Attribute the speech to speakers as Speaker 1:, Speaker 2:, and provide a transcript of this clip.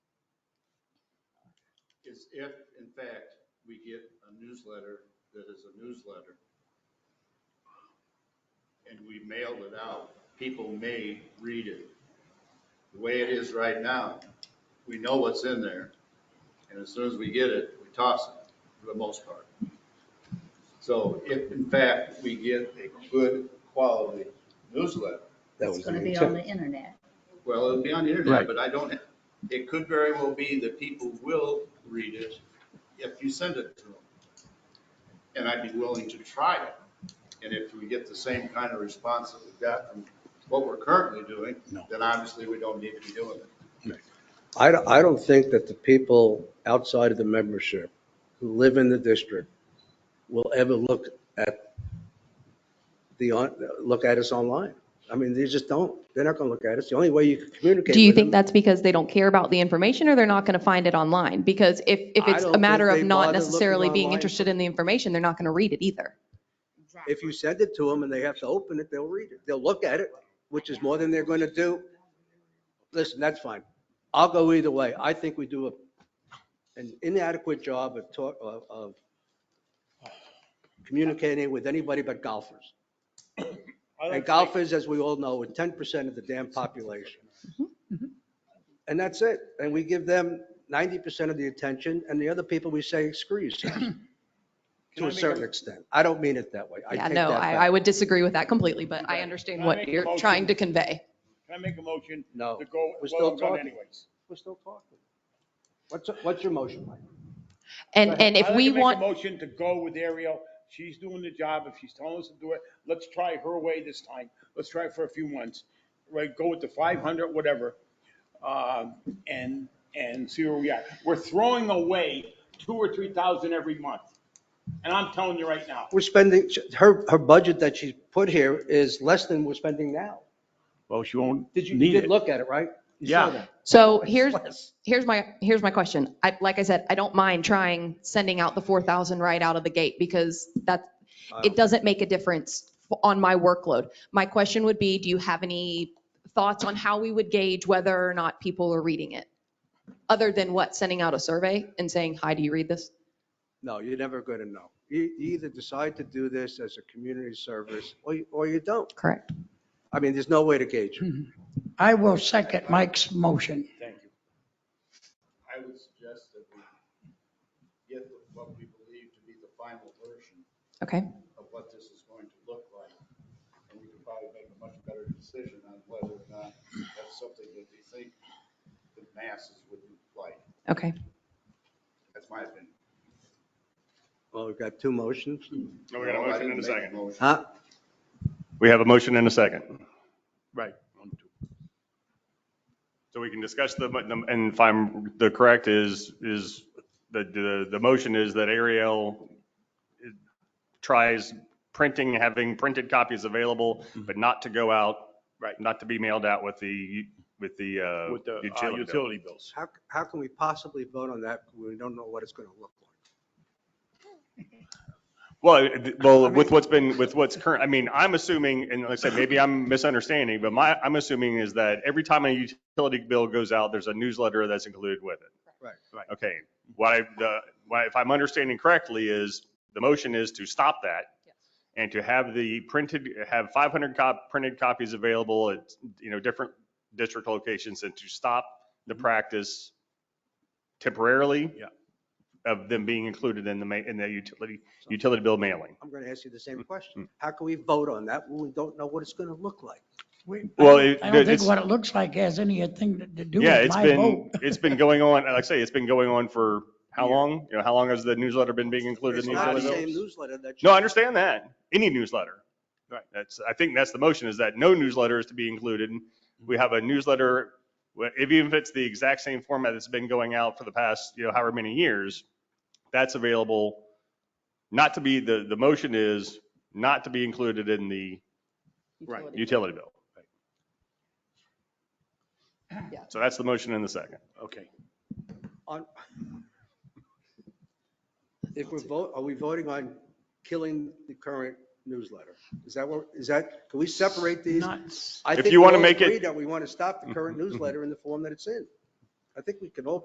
Speaker 1: is if, in fact, we get a newsletter that is a newsletter and we mail it out, people may read it. The way it is right now, we know what's in there, and as soon as we get it, we toss it, for the most part. So if, in fact, we get a good quality newsletter,
Speaker 2: That
Speaker 3: It's
Speaker 2: was the
Speaker 3: gonna be on
Speaker 2: intent.
Speaker 3: the internet.
Speaker 1: well, it'll be on the
Speaker 2: Right.
Speaker 1: internet, but I don't, it could very well be that people will read it if you send it to them. And I'd be willing to try it. And if we get the same kind of response that we got from what we're currently doing,
Speaker 2: No.
Speaker 1: then obviously we don't need to be doing it.
Speaker 2: I, don't- I don't think that the people outside of the membership who live in the district will ever look at the, on look at us online. I mean, they just don't. They're not going to look at us. The only way you can communicate.
Speaker 4: Do you
Speaker 2: with
Speaker 4: think
Speaker 2: them-
Speaker 4: that's because they don't care about the information or they're not going to find it online? Because if, if
Speaker 2: I
Speaker 4: it's
Speaker 2: don't
Speaker 4: a
Speaker 2: think
Speaker 4: matter
Speaker 2: they
Speaker 4: of not
Speaker 2: bother looking
Speaker 4: necessarily being
Speaker 2: online.
Speaker 4: interested in the information, they're not going to read it either.
Speaker 2: If you send it to them and they have to open it, they'll read it. They'll look at it, which is more than they're going to do. Listen, that's fine. I'll go either way. I think we do a- an inadequate job of talk, of- of communicating with anybody but golfers. And golfers, as we all know, are 10% of the damn population.
Speaker 4: Mm-hmm,
Speaker 2: And that's it. And we give them 90% of the attention and the other people we say, screw yourself, to a certain extent. I don't mean it that way. I
Speaker 4: Yeah,
Speaker 2: take
Speaker 4: no,
Speaker 2: that
Speaker 4: I,
Speaker 2: back.
Speaker 4: I would disagree with that completely, but I
Speaker 5: Okay.
Speaker 4: understand
Speaker 5: Can I
Speaker 4: what
Speaker 5: make a
Speaker 4: you're
Speaker 5: motion?
Speaker 4: trying to convey.
Speaker 5: Can I make a motion
Speaker 2: No.
Speaker 5: to go,
Speaker 2: We're
Speaker 5: well,
Speaker 2: still
Speaker 5: I'm going
Speaker 2: talking.
Speaker 5: anyways.
Speaker 2: We're still talking. What's, what's your motion, Mike? Go
Speaker 4: And,
Speaker 2: ahead.
Speaker 4: and if
Speaker 5: I'd like
Speaker 4: we
Speaker 5: to make a
Speaker 4: want,
Speaker 5: Motion to go with Ariel. She's doing the job. If she's telling us to do it, let's try her way this time. Let's try it for a few months. Right, go with the five hundred, whatever. Um, and, and see where we are. We're throwing away two or three thousand every month. And I'm telling you right now,
Speaker 2: We're spending, her, her budget that she's put here is less than we're spending now.
Speaker 5: well, she won't
Speaker 2: Did you, you did look at it, right? You saw
Speaker 5: Yeah.
Speaker 2: that.
Speaker 4: so here's,
Speaker 2: Less.
Speaker 4: here's my, here's my question. I, like I said, I don't mind trying, sending out the 4,000 right out of the gate because that's, it doesn't make a difference f- on my workload. My question would be, do you have any thoughts on how we would gauge whether or not people are reading it? Other than what, sending out a survey and saying, hi, do you read this?
Speaker 2: No, you're never going to know. You you either decide to do this as a community service or you, or you don't.
Speaker 4: Correct.
Speaker 2: I mean, there's no way to gauge. it.
Speaker 6: I will second Mike's motion.
Speaker 5: Thank you.
Speaker 1: I would suggest that we get what we believe to be the final version
Speaker 4: Okay.
Speaker 1: of what this is going to look like. And we can probably make a much better decision on whether or not that's something that we think the masses would like.
Speaker 4: Okay.
Speaker 1: That's my opinion.
Speaker 2: Well, we've got two motions.
Speaker 7: No, we got a
Speaker 1: No, I
Speaker 7: motion
Speaker 1: didn't
Speaker 7: and a
Speaker 1: make
Speaker 7: second.
Speaker 1: motion.
Speaker 2: Huh?
Speaker 7: We have a motion and a second.
Speaker 5: Right. One, two.
Speaker 7: So we can discuss the, and if I'm, the correct is, is the, the, the motion is that Ariel tries printing, having printed copies available, but not to go out.
Speaker 5: Right.
Speaker 7: Not to be mailed out with the, with the, uh.
Speaker 5: With the uh,
Speaker 7: utility bill.
Speaker 5: utility bills.
Speaker 2: How, how can we possibly vote on that? when We don't know what it's going to look like.
Speaker 7: Well, it- well, with what's been, with what's current, I mean, I'm assuming, and like I said, maybe I'm misunderstanding, but my, I'm assuming is that every time a utility bill goes out, there's a newsletter that's included with it.
Speaker 2: Right.
Speaker 5: Right.
Speaker 7: Okay, what I, the, what, if I'm understanding correctly is, the motion is to stop that and to have the printed, have 500 cop, printed copies available at, you know, different district locations and to stop the practice temporarily.
Speaker 5: Yeah.
Speaker 7: Of them being included in the ma, in the utility, utility bill mailing.
Speaker 2: I'm going to ask you the same question.
Speaker 7: Mm-hmm.
Speaker 2: How can we vote on that when we don't know what it's going to look like?
Speaker 6: We-
Speaker 7: Well,
Speaker 6: I
Speaker 7: it-
Speaker 6: don't- I don't think
Speaker 7: it's-
Speaker 6: what it looks like has anything to to do
Speaker 7: Yeah,
Speaker 6: with
Speaker 7: it's
Speaker 6: my
Speaker 7: been,
Speaker 6: vote.
Speaker 7: it's been going on, like I say, it's been going on for how long? You know, how long has the newsletter been being included
Speaker 2: It's
Speaker 7: in the
Speaker 2: not the
Speaker 7: utility bill?
Speaker 2: same newsletter that. you-
Speaker 7: No, I understand that. Any newsletter.
Speaker 5: Right.
Speaker 7: That's, I think that's the motion is that no newsletter is to be included. We have a newsletter, wh- if even if it's the exact same format that's been going out for the past, you know, however many years, that's available not to be, the, the motion is not to be included in the
Speaker 5: Right.
Speaker 7: utility bill.
Speaker 4: Yeah.
Speaker 7: So that's the motion in the second.
Speaker 5: Okay.
Speaker 2: on- If we're vote, are we voting on killing the current newsletter? Is that what, is that, can we separate these?
Speaker 6: Nuts.
Speaker 2: I
Speaker 7: If
Speaker 2: think
Speaker 7: you
Speaker 2: we
Speaker 7: wanna
Speaker 2: all
Speaker 7: make it- Mm-hmm.
Speaker 2: agree That we want to stop the current newsletter in the form that it's in. I think we can all